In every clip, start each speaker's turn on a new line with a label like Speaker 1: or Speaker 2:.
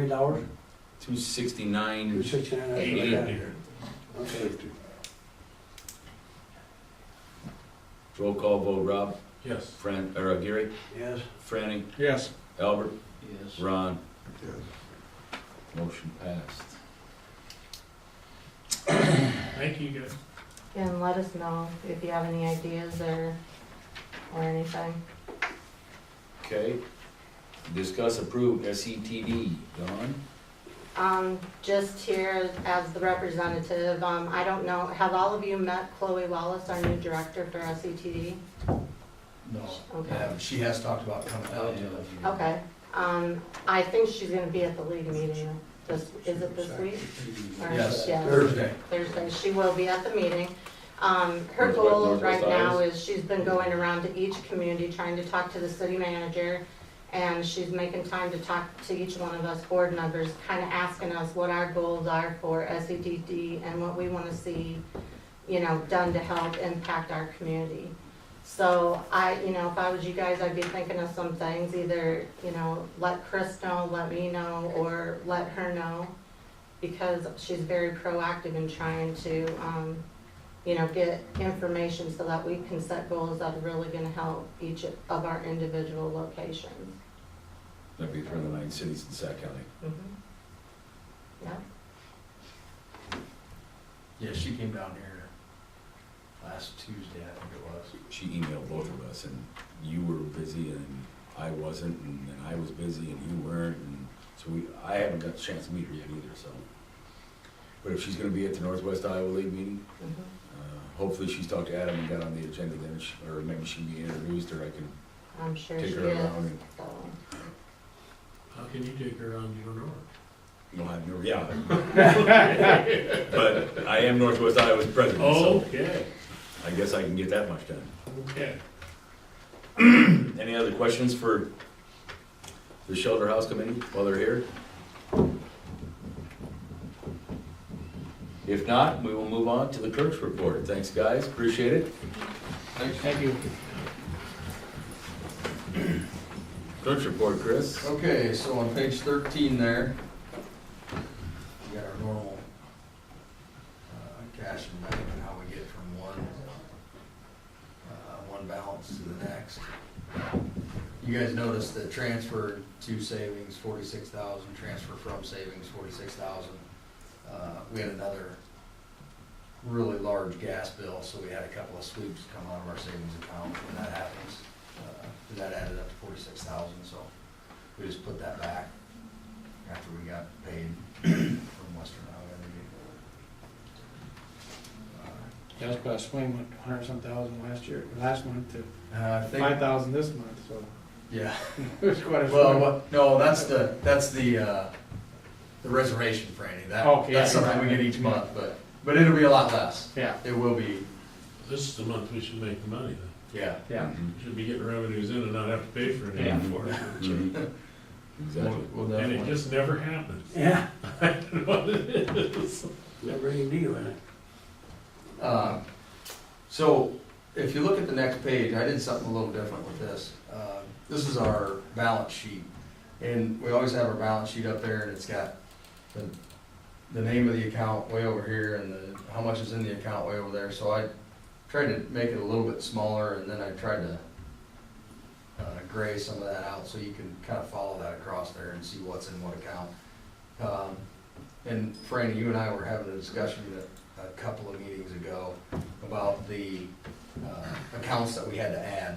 Speaker 1: million dollars,
Speaker 2: Two sixty-nine,
Speaker 1: two sixty-nine, that's
Speaker 2: eighty.
Speaker 1: what I got. Okay,
Speaker 2: Roll call vote, Rob,
Speaker 3: Yes.
Speaker 2: Fran, or uh, Gary,
Speaker 1: yes,
Speaker 2: Franny,
Speaker 3: Yes.
Speaker 2: Albert,
Speaker 3: Yes.
Speaker 2: Ron,
Speaker 4: Yes.
Speaker 2: motion passed.
Speaker 3: Thank you, guys.
Speaker 5: And let us know if you have any ideas or, or anything.
Speaker 2: Okay. Discuss approve E SETD, Don?
Speaker 5: Um, just here as the representative, um, I don't know, have all of you met Chloe Wallace, our new director for SETD?
Speaker 3: No.
Speaker 5: Okay,
Speaker 3: Yeah, she has talked about coming out. yeah.
Speaker 5: okay, um, I think she's gonna be at the league meeting this, is it this week? Or-
Speaker 3: Yes,
Speaker 5: yeah.
Speaker 3: Thursday.
Speaker 5: Thursday, she will be at the meeting. Um, her
Speaker 2: Northwest-
Speaker 5: goal
Speaker 2: Northwest
Speaker 5: right now is she's been going around to each community trying to talk to the city manager. And she's making time to talk to each one of us board members, kind of asking us what our goals are for SEDD and what we want to see, you know, done to help impact our community. So I, you know, if I was you guys, I'd be thinking of some things, either, you know, let Chris know, let me know, or let her know because she's very proactive in trying to, um, you know, get information so that we can set goals that are really gonna help each of our individual locations.
Speaker 2: That'd be for the nine cities in Sac County.
Speaker 5: Yeah,
Speaker 3: Yeah, she came down here last Tuesday, I think it was.
Speaker 2: She emailed both of us, and you were busy, and I wasn't, and then I was busy, and you weren't, and so we, I haven't got a chance to meet her yet either, so. But if she's gonna be at the Northwest Iowa League meeting,
Speaker 5: mm-hmm.
Speaker 2: uh, hopefully she's talked to Adam and got on the agenda then, she- or maybe she can be introduced, or I can
Speaker 5: I'm sure she
Speaker 2: take her around
Speaker 5: is,
Speaker 2: and,
Speaker 5: so.
Speaker 6: How can you take her on your own?
Speaker 2: no, I've never, yeah. But I am Northwest Iowa's president, so
Speaker 6: Okay,
Speaker 2: I guess I can get that much done.
Speaker 6: okay.
Speaker 2: Any other questions for the shelter house committee while they're here? If not, we will move on to the clerk's report. Thanks, guys, appreciate it.
Speaker 3: Thank you.
Speaker 2: Clerk's report, Chris.
Speaker 3: Okay, so on page thirteen there, we got our normal uh, cash and bank and how we get from one, uh, one balance to the next. You guys noticed that transfer to savings, forty-six thousand, transfer from savings, forty-six thousand. Uh, We had another really large gas bill, so we had a couple of sweeps come out of our savings account when that happens. Uh, That added up to forty-six thousand, so we just put that back after we got paid from Western Iowa Energy.
Speaker 7: Gas price swing went a hundred some thousand last year, last month to
Speaker 3: Uh, I
Speaker 7: five
Speaker 3: think,
Speaker 7: thousand this month, so
Speaker 3: yeah,
Speaker 7: it was quite a
Speaker 3: well,
Speaker 7: swing.
Speaker 3: what, no, that's the, that's the, uh, the reservation for any, that,
Speaker 7: Okay,
Speaker 3: that's
Speaker 7: yeah,
Speaker 3: something we
Speaker 7: right.
Speaker 3: get each month, but, but it'll be a lot less.
Speaker 7: Yeah,
Speaker 3: It will be,
Speaker 6: This is the month we should make the money then.
Speaker 3: yeah,
Speaker 7: yeah.
Speaker 2: Mhm.
Speaker 6: We Should be getting revenues in and not have to pay for
Speaker 7: Yeah.
Speaker 6: anything for it.
Speaker 2: Mhm. Exactly.
Speaker 3: we'll we'll
Speaker 6: And it
Speaker 3: definitely.
Speaker 6: just never happens.
Speaker 1: yeah,
Speaker 6: I don't know what it is.
Speaker 1: never any deal in it.
Speaker 3: Um, So if you look at the next page, I did something a little different with this. Uh, This is our balance sheet. And we always have our balance sheet up there and it's got the, the name of the account way over here and the, how much is in the account way over there. So I tried to make it a little bit smaller and then I tried to uh, gray some of that out so you can kind of follow that across there and see what's in what account. Um, And Franny, you and I were having a discussion that a couple of meetings ago about the uh, accounts that we had to add.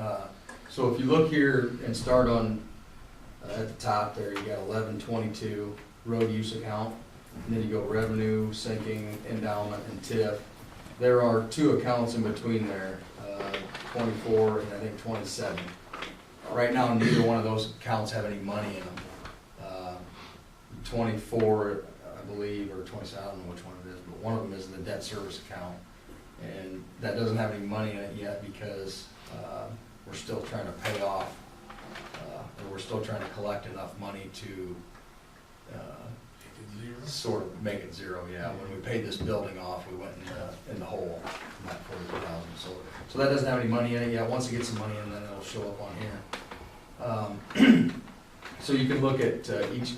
Speaker 3: Uh, So if you look here and start on, uh, at the top there, you got eleven twenty-two road use account. And then you go revenue, sinking, endowment, and TIF. There are two accounts in between there, uh, twenty-four and I think twenty-seven. Right now, neither one of those accounts have any money in them. Uh, 24, I believe, or 27, I don't know which one it is, but one of them is in the debt service account. And that doesn't have any money in it yet because uh, we're still trying to pay off, uh, or we're still trying to collect enough money to uh, sort of make it zero, yeah. When we paid this building off, we went in the, in the hole, in that 40,000. So, so that doesn't have any money in it yet. Once it gets some money in, then it'll show up on here. Um, So you can look at uh, each